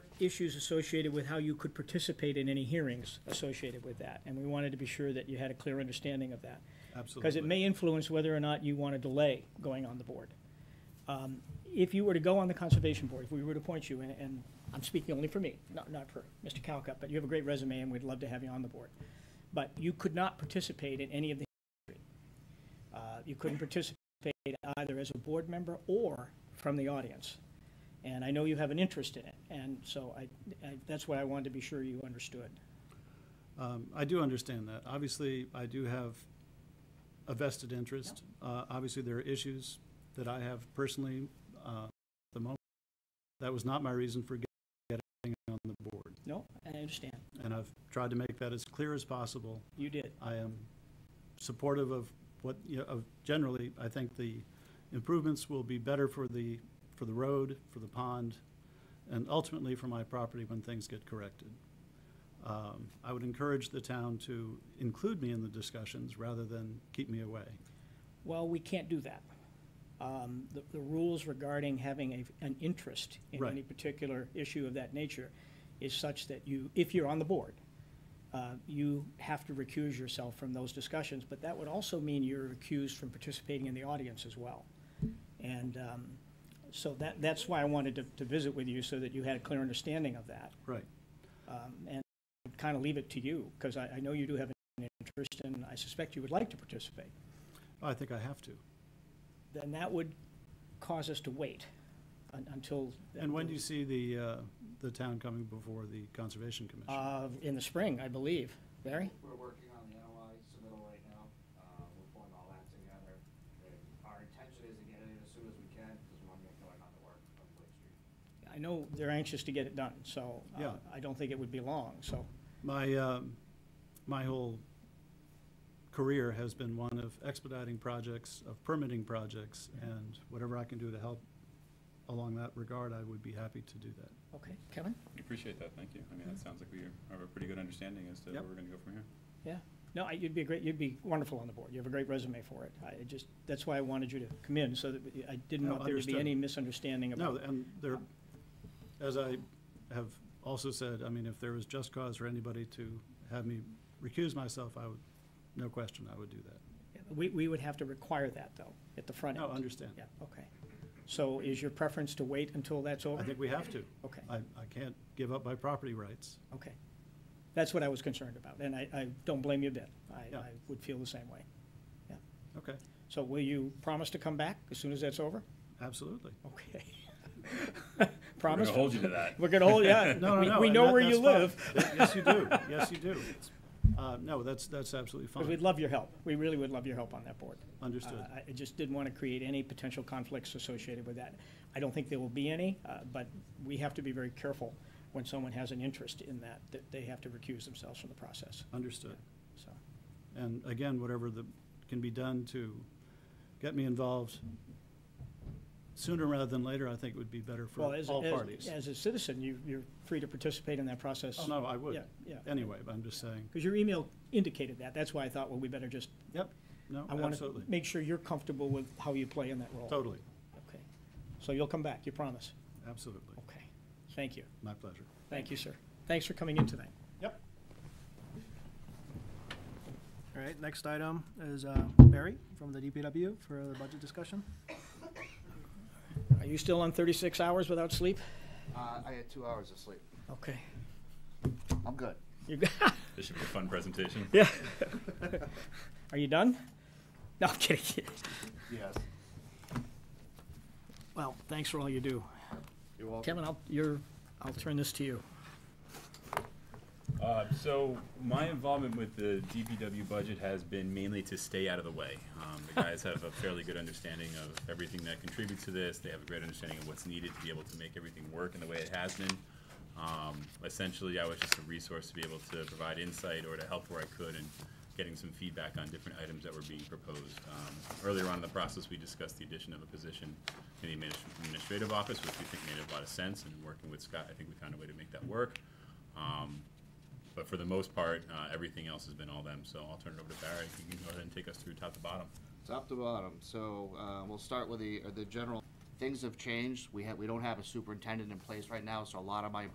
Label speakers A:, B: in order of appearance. A: issues associated with how you could participate in any hearings associated with that, and we wanted to be sure that you had a clear understanding of that.
B: Absolutely.
A: Because it may influence whether or not you want to delay going on the board. Um, If you were to go on the Conservation Board, if we were to appoint you, and- and I'm speaking only for me, not, not for Mr. Calcutt, but you have a great resume and we'd love to have you on the board. But you could not participate in any of the uh, You couldn't participate either as a board member or from the audience. And I know you have an interest in it, and so I, I- that's why I wanted to be sure you understood.
B: Um, I do understand that. Obviously, I do have a vested interest. Uh, Obviously, there are issues that I have personally uh, at the moment. That was not my reason for getting on the board,
A: No, I understand.
B: and I've tried to make that as clear as possible.
A: You did.
B: I am supportive of what, you know, of generally, I think the improvements will be better for the, for the road, for the pond, and ultimately for my property when things get corrected. Um, I would encourage the town to include me in the discussions rather than keep me away.
A: Well, we can't do that. Um, The the rules regarding having a- an interest in
B: Right.
A: any particular issue of that nature is such that you, if you're on the board, uh, you have to recuse yourself from those discussions, but that would also mean you're recused from participating in the audience as well. And um, so that, that's why I wanted to- to visit with you, so that you had a clear understanding of that.
B: Right.
A: Um, And kind of leave it to you, because I I know you do have an interest, and I suspect you would like to participate
B: I think I have to.
A: then that would cause us to wait un- until.
B: And when do you see the, uh, the town coming before the Conservation Commission?
A: Uh, in the spring, I believe. Barry?
C: We're working on the NOI submittal right now. Uh, We're pulling all that together. And Our intention is to get it in as soon as we can because we want to get going on the work on Blake Street.
A: I know they're anxious to get it done, so. uh,
B: Yeah.
A: I don't think it would be long, so.
B: My, um, my whole career has been one of expediting projects, of permitting projects, and whatever I can do to help along that regard, I would be happy to do that.
A: Okay, Kevin?
D: We Appreciate that, thank you. I mean, that sounds like we have a pretty good understanding as to where
B: Yep.
D: we're gonna go from here.
A: Yeah. No, I- you'd be a great, you'd be wonderful on the board. You have a great resume for it. I just, that's why I wanted you to come in, so that we- I didn't
B: No,
A: want there to be
B: understood.
A: any misunderstanding
B: No,
A: about.
B: and there, as I have also said, I mean, if there was just cause for anybody to have me recuse myself, I would, no question, I would do that.
A: We, we would have to require that, though, at the front
B: No,
A: end.
B: understand.
A: Yeah, okay. So is your preference to wait until that's over?
B: I think we have to.
A: Okay.
B: I, I can't give up my property rights.
A: Okay. That's what I was concerned about, and I, I don't blame you a bit. I,
B: Yeah.
A: I would feel the same way. Yeah.
B: Okay,
A: So will you promise to come back as soon as that's over?
B: absolutely.
A: Okay.
D: We're
A: Promise?
D: gonna hold you to that.
A: We're gonna hold, yeah.
B: No, no,
A: We-
B: no.
A: We
B: and
A: know
B: that-
A: where you
B: that's
A: live,
B: fine. Th- Yes, you do. Yes, you do. Uh, no, that's, that's absolutely
A: because we'd
B: fine.
A: love your help. We really would love your help on that board.
B: Understood.
A: Uh, I I just didn't want to create any potential conflicts associated with that. I don't think there will be any, uh, but we have to be very careful when someone has an interest in that, that they have to recuse themselves from the process,
B: Understood.
A: so.
B: And again, whatever the, can be done to get me involved sooner rather than later, I think would be better for
A: Well, as,
B: all
A: as-
B: parties.
A: as a citizen, you, you're free to participate in that process.
B: Oh, no, I would.
A: Yeah, yeah.
B: Anyway, but I'm just saying,
A: Because your email indicated that. That's why I thought, well, we better just,
B: yep, no,
A: I want to
B: absolutely,
A: make sure you're comfortable with how you play in that role.
B: totally,
A: Okay. So you'll come back, you promise?
B: absolutely.
A: Okay. Thank you.
B: My pleasure.
A: Thank you, sir. Thanks for coming in tonight.
B: Yep.
E: All right, next item is uh, Barry from the DPW for the budget discussion.
A: Are you still on 36 hours without sleep?
C: Uh, I had two hours of sleep.
A: Okay.
C: I'm good.
A: You-
D: This should be a fun presentation.
A: Yeah. Are you done? No, I'm kidding.
C: Yes.
A: Well, thanks for all you do.
C: You're welcome.
A: Kevin, I'll, you're, I'll turn this to you.
D: Uh, so my involvement with the DPW budget has been mainly to stay out of the way. Um, the guys have a fairly good understanding of everything that contributes to this. They have a great understanding of what's needed to be able to make everything work in the way it has been. Um, essentially, I was just a resource to be able to provide insight or to help where I could and getting some feedback on different items that were being proposed. Um, Earlier on in the process, we discussed the addition of a position in the adminis- administrative office, which we think made a lot of sense, and working with Scott, I think we found a way to make that work. Um, but for the most part, uh, everything else has been all them, so I'll turn it over to Barry, he can go ahead and take us through top to bottom.
C: Top to bottom. So uh, we'll start with the, uh, the general, things have changed. We have, we don't have a superintendent in place right now, so a lot of my